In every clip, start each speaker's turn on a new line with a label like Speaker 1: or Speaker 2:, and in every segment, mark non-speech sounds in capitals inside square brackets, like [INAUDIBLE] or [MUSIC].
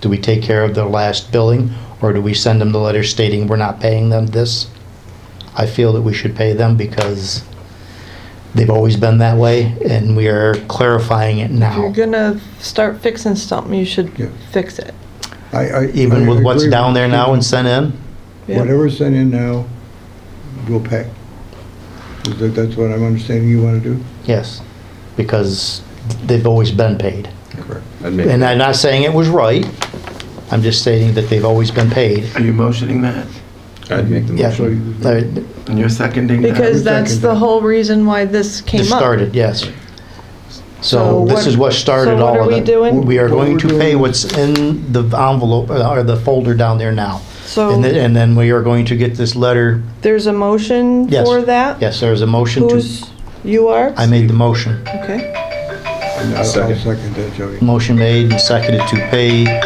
Speaker 1: Do we take care of their last billing, or do we send them the letter stating we're not paying them this? I feel that we should pay them because they've always been that way, and we are clarifying it
Speaker 2: If you're
Speaker 1: now.
Speaker 2: gonna start fixing something, you should
Speaker 3: Yeah.
Speaker 2: fix it.
Speaker 3: I, I.
Speaker 1: Even
Speaker 3: I
Speaker 1: with what's
Speaker 3: agree
Speaker 1: down there
Speaker 3: you.
Speaker 1: now and sent in?
Speaker 2: Yeah.
Speaker 3: Whatever's sent in now, we'll pay. Is that, that's what I'm understanding you want to do?
Speaker 1: Yes, because they've always been paid.
Speaker 3: Correct.
Speaker 4: I'd make-
Speaker 1: And I'm not saying it was right, I'm just stating that they've always been paid.
Speaker 4: Are you motioning that?
Speaker 3: I'd make the
Speaker 1: Yeah,
Speaker 3: So you-
Speaker 1: uh, it
Speaker 4: And you're seconding that?
Speaker 2: Because that's
Speaker 3: second
Speaker 2: the
Speaker 3: that.
Speaker 2: whole reason why this came up.
Speaker 1: started, yes. So
Speaker 2: So
Speaker 1: this is what
Speaker 2: what-
Speaker 1: started
Speaker 2: so what
Speaker 1: all
Speaker 2: are
Speaker 1: of
Speaker 2: we
Speaker 1: it.
Speaker 2: doing?
Speaker 1: We are
Speaker 3: What
Speaker 1: going
Speaker 3: we're
Speaker 1: to pay
Speaker 3: doing-
Speaker 1: what's in the envelope, uh, or the folder down there now. And then,
Speaker 2: So
Speaker 1: and then we are going to get this letter,
Speaker 2: there's a motion
Speaker 1: Yes.
Speaker 2: for that?
Speaker 1: yes, there is a motion to,
Speaker 2: Who's, you are?
Speaker 1: I made the motion.
Speaker 2: Okay.
Speaker 3: I'll I'll
Speaker 4: Second.
Speaker 3: second that, Joey.
Speaker 1: Motion made and seconded to pay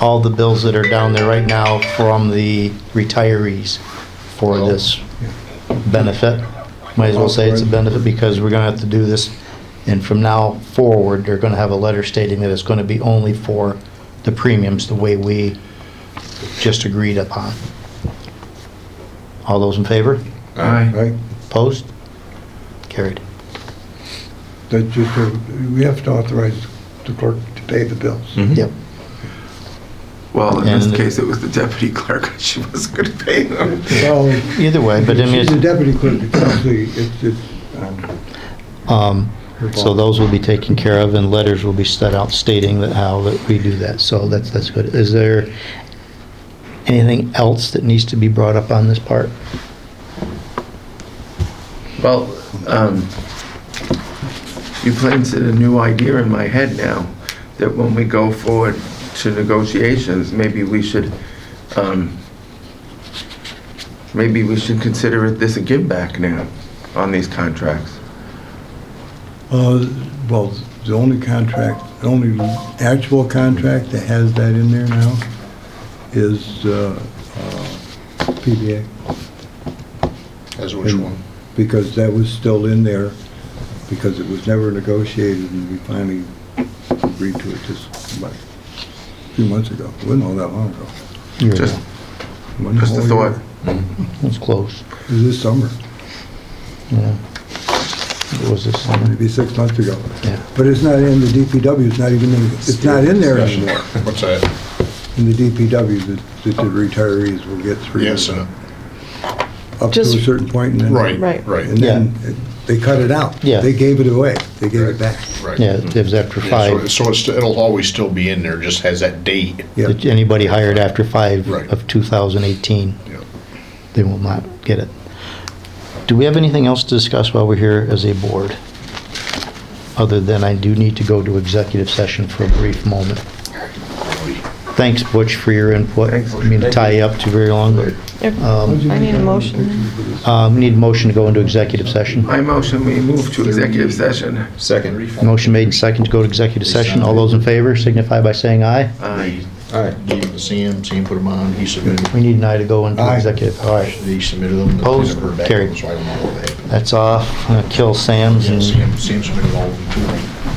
Speaker 1: all the bills that are down there right now from the retirees for this benefit. Might as well say it's a benefit because we're gonna have to do this. And from now forward, they're gonna have a letter stating that it's gonna be only for the premiums, the way we just agreed upon. All those in favor?
Speaker 4: Aye.
Speaker 3: Right?
Speaker 1: Opposed? Carried.
Speaker 3: That just, uh, we have to authorize the clerk to pay the bills.
Speaker 1: Yep.
Speaker 4: Well, in this
Speaker 1: And-
Speaker 4: case, it was the deputy clerk. [LAUGHS] She was going to pay them.
Speaker 3: Well,
Speaker 1: Either way, but I mean,
Speaker 3: she's the
Speaker 1: it's-
Speaker 3: deputy clerk, it's actually, it's, it's, um,
Speaker 1: um,
Speaker 3: her
Speaker 1: So
Speaker 3: fault.
Speaker 1: those will be taken care of and letters will be set out stating that how that we do that. So that's, that's good. Is there anything else that needs to be brought up on this part?
Speaker 4: Well, um, you planted a new idea in my head now, that when we go forward to negotiations, maybe we should, um, maybe we should consider it this a give back now on these contracts.
Speaker 3: Uh, Well, the only contract, the only actual contract that has that in there now is uh, uh, PBA,
Speaker 5: As which
Speaker 3: And-
Speaker 5: one?
Speaker 3: because that was still in there, because it was never negotiated, and we finally agreed to it just about a few months ago. It wasn't all that long ago.
Speaker 1: You're-
Speaker 4: Just,
Speaker 3: It wasn't
Speaker 4: just a
Speaker 3: whole year.
Speaker 4: thought.
Speaker 1: It's close.
Speaker 3: It was this summer,
Speaker 1: Yeah. It was this summer.
Speaker 3: maybe six months ago.
Speaker 1: Yeah.
Speaker 3: But it's not in the DPW, it's not even, in it's not in there
Speaker 5: Discussion.
Speaker 3: anymore.
Speaker 5: What's that?
Speaker 3: In the DPW, that that the retirees will get three
Speaker 5: Yes,
Speaker 3: years
Speaker 5: and,
Speaker 3: up to a
Speaker 2: Just-
Speaker 3: certain point and then.
Speaker 5: right,
Speaker 2: Right.
Speaker 5: right,
Speaker 3: And then they cut it out.
Speaker 1: Yeah.
Speaker 3: They gave it away. They gave it back.
Speaker 5: right.
Speaker 1: Yeah, it was after
Speaker 5: Yeah, so-
Speaker 1: five.
Speaker 5: So it's, it'll always still be in there, just has that date.
Speaker 3: Yeah.
Speaker 1: That Anybody hired after five
Speaker 5: Right.
Speaker 1: of 2018,
Speaker 5: Yeah.
Speaker 1: they will not get it. Do we have anything else to discuss while we're here as a board? Other than I do need to go to executive session for a brief moment. Thanks, Butch, for your input.
Speaker 4: Thanks.
Speaker 1: I mean, to tie you up too very long. but,
Speaker 2: If-
Speaker 1: Um,
Speaker 2: I need a motion.
Speaker 1: uh, we need a motion to go into executive session.
Speaker 4: My motion, we move to executive session.
Speaker 5: Second.
Speaker 1: Motion made and second to go to executive session. All those in favor signify by saying aye.
Speaker 4: Aye.
Speaker 5: Gave it to Sam, Sam put them on, he submitted,
Speaker 1: We need an aye to go into
Speaker 3: Aye.
Speaker 1: executive. All right,
Speaker 5: he submitted them. and I
Speaker 1: Opposed?
Speaker 5: never heard back
Speaker 1: Carried.
Speaker 5: from him, So I don't know what happened.
Speaker 1: that's off. I'm gonna Kill Sam's
Speaker 5: Yeah,
Speaker 1: and
Speaker 5: Sam, Sam submitted all of them too.